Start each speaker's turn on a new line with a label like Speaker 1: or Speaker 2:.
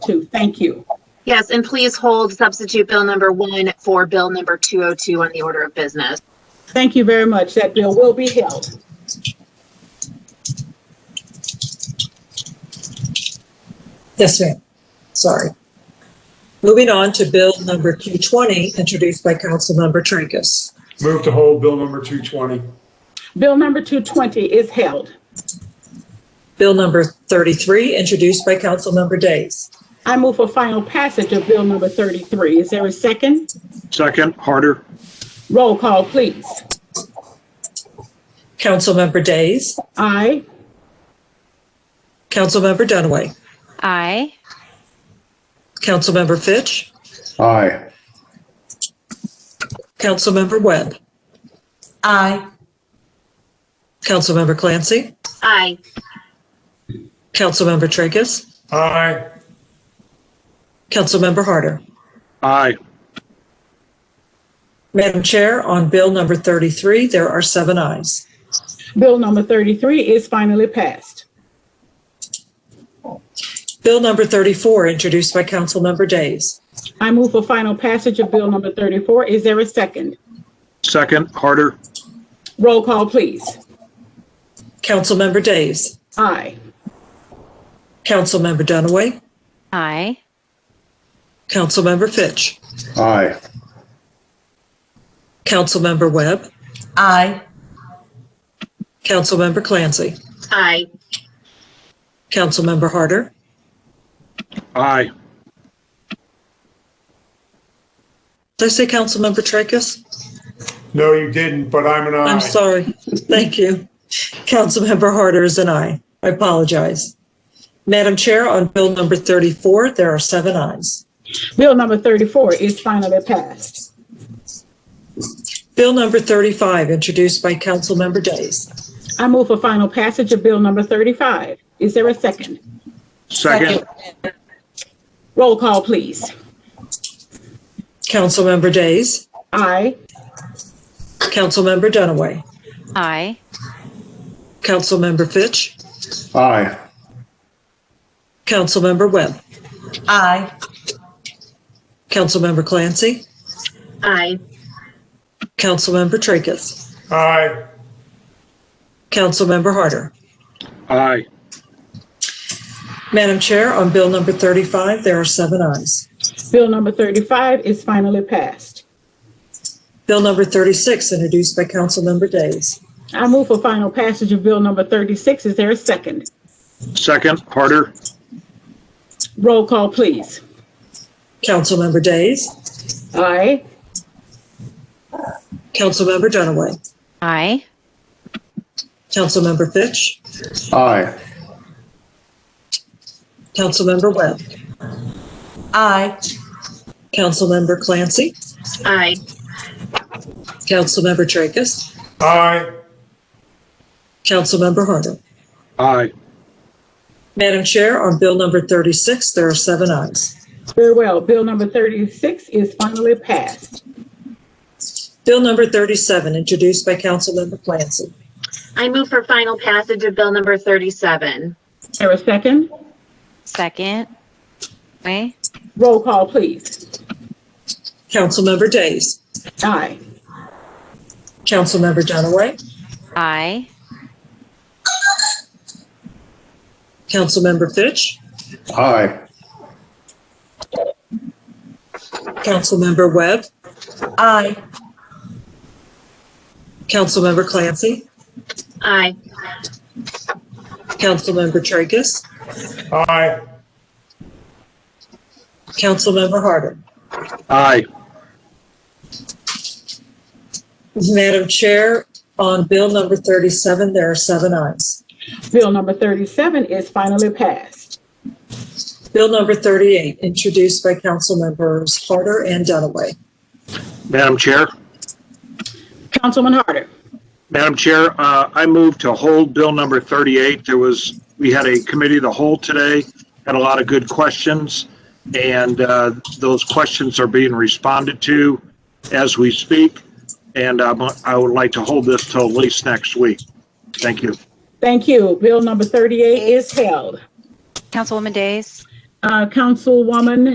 Speaker 1: two. Thank you.
Speaker 2: Yes, and please hold substitute bill number one for bill number 202 on the order of business.
Speaker 1: Thank you very much. That bill will be held.
Speaker 3: Yes, ma'am. Sorry. Moving on to Bill number Q20, introduced by Councilmember Tracus.
Speaker 4: Move to hold bill number 220.
Speaker 1: Bill number 220 is held.
Speaker 3: Bill number 33, introduced by Councilmember Days.
Speaker 1: I move for final passage of bill number 33. Is there a second?
Speaker 5: Second, harder.
Speaker 1: Roll call, please.
Speaker 3: Councilmember Days,
Speaker 1: Aye.
Speaker 3: Councilmember Dunaway,
Speaker 6: Aye.
Speaker 3: Councilmember Fitch,
Speaker 5: Aye.
Speaker 3: Councilmember Webb. Aye. Councilmember Clancy,
Speaker 2: Aye.
Speaker 3: Councilmember Tracus,
Speaker 4: Aye.
Speaker 3: Councilmember Harder.
Speaker 5: Aye.
Speaker 3: Madam Chair, on Bill number 33, there are seven ayes.
Speaker 1: Bill number 33 is finally passed.
Speaker 3: Bill number 34, introduced by Councilmember Days.
Speaker 1: I move for final passage of bill number 34. Is there a second?
Speaker 5: Second, harder.
Speaker 1: Roll call, please.
Speaker 3: Councilmember Days,
Speaker 1: Aye.
Speaker 3: Councilmember Dunaway,
Speaker 6: Aye.
Speaker 3: Councilmember Fitch,
Speaker 5: Aye.
Speaker 3: Councilmember Webb. Aye. Councilmember Clancy,
Speaker 2: Aye.
Speaker 3: Councilmember Harder,
Speaker 5: Aye.
Speaker 3: did I say Councilmember Tracus?
Speaker 4: No, you didn't, but I'm an
Speaker 3: I'm
Speaker 4: aye.
Speaker 3: sorry, thank you. Councilmember Harder is an aye, I apologize. Madam Chair, on Bill number 34, there are seven ayes.
Speaker 1: Bill number 34 is finally passed.
Speaker 3: Bill number 35, introduced by Councilmember Days.
Speaker 1: I move for final passage of bill number 35. Is there a second?
Speaker 5: Second,
Speaker 1: Roll call, please.
Speaker 3: Councilmember Days,
Speaker 1: Aye.
Speaker 3: Councilmember Dunaway,
Speaker 6: Aye.
Speaker 3: Councilmember Fitch,
Speaker 5: aye.
Speaker 3: Councilmember Webb.
Speaker 7: Aye.
Speaker 3: Councilmember Clancy,
Speaker 2: Aye.
Speaker 3: Councilmember Tracus,
Speaker 4: Aye.
Speaker 3: Councilmember Harder.
Speaker 5: Aye.
Speaker 3: Madam Chair, on Bill number 35, there are seven ayes.
Speaker 1: Bill number 35 is finally passed.
Speaker 3: Bill number 36, introduced by Councilmember Days.
Speaker 1: I move for final passage of bill number 36. Is there a second?
Speaker 5: Second, harder.
Speaker 1: Roll call, please.
Speaker 3: Councilmember Days,
Speaker 1: Aye.
Speaker 3: Councilmember Dunaway,
Speaker 6: Aye.
Speaker 3: Councilmember Fitch,
Speaker 5: Aye.
Speaker 3: Councilmember Webb,
Speaker 7: Aye.
Speaker 3: Councilmember Clancy,
Speaker 2: Aye.
Speaker 3: Councilmember Tracus,
Speaker 4: Aye.
Speaker 3: Councilmember Harder.
Speaker 5: Aye.
Speaker 3: Madam Chair, on Bill number 36, there are seven ayes.
Speaker 1: Very well. Bill number 36 is finally passed.
Speaker 3: Bill number 37, introduced by Councilmember Clancy.
Speaker 2: I move for final passage of bill number 37.
Speaker 1: Is there a second?
Speaker 6: Second. Aye.
Speaker 1: Roll call, please.
Speaker 3: Councilmember Days,
Speaker 1: Aye.
Speaker 3: Councilmember Dunaway,
Speaker 6: Aye.
Speaker 3: Councilmember Fitch,
Speaker 5: Aye.
Speaker 3: Councilmember Webb,
Speaker 7: Aye.
Speaker 3: Councilmember Clancy,
Speaker 2: Aye.
Speaker 3: Councilmember Tracus,
Speaker 4: Aye.
Speaker 3: Councilmember Harder.
Speaker 5: Aye.
Speaker 3: Madam Chair, on Bill number 37, there are seven ayes.
Speaker 1: Bill number 37 is finally passed.
Speaker 3: Bill number 38, introduced by Councilmembers Harder and Dunaway.
Speaker 5: Madam Chair,
Speaker 1: Councilman Harder.
Speaker 5: Madam Chair, uh, I move to hold bill number 38. There was, we had a committee of the whole today, had a lot of good questions, and uh, those questions are being responded to as we speak, and um, I would like to hold this till at least next week. Thank you.
Speaker 1: Thank you. Bill number 38 is held.
Speaker 6: Councilwoman Days.
Speaker 1: Uh, Councilwoman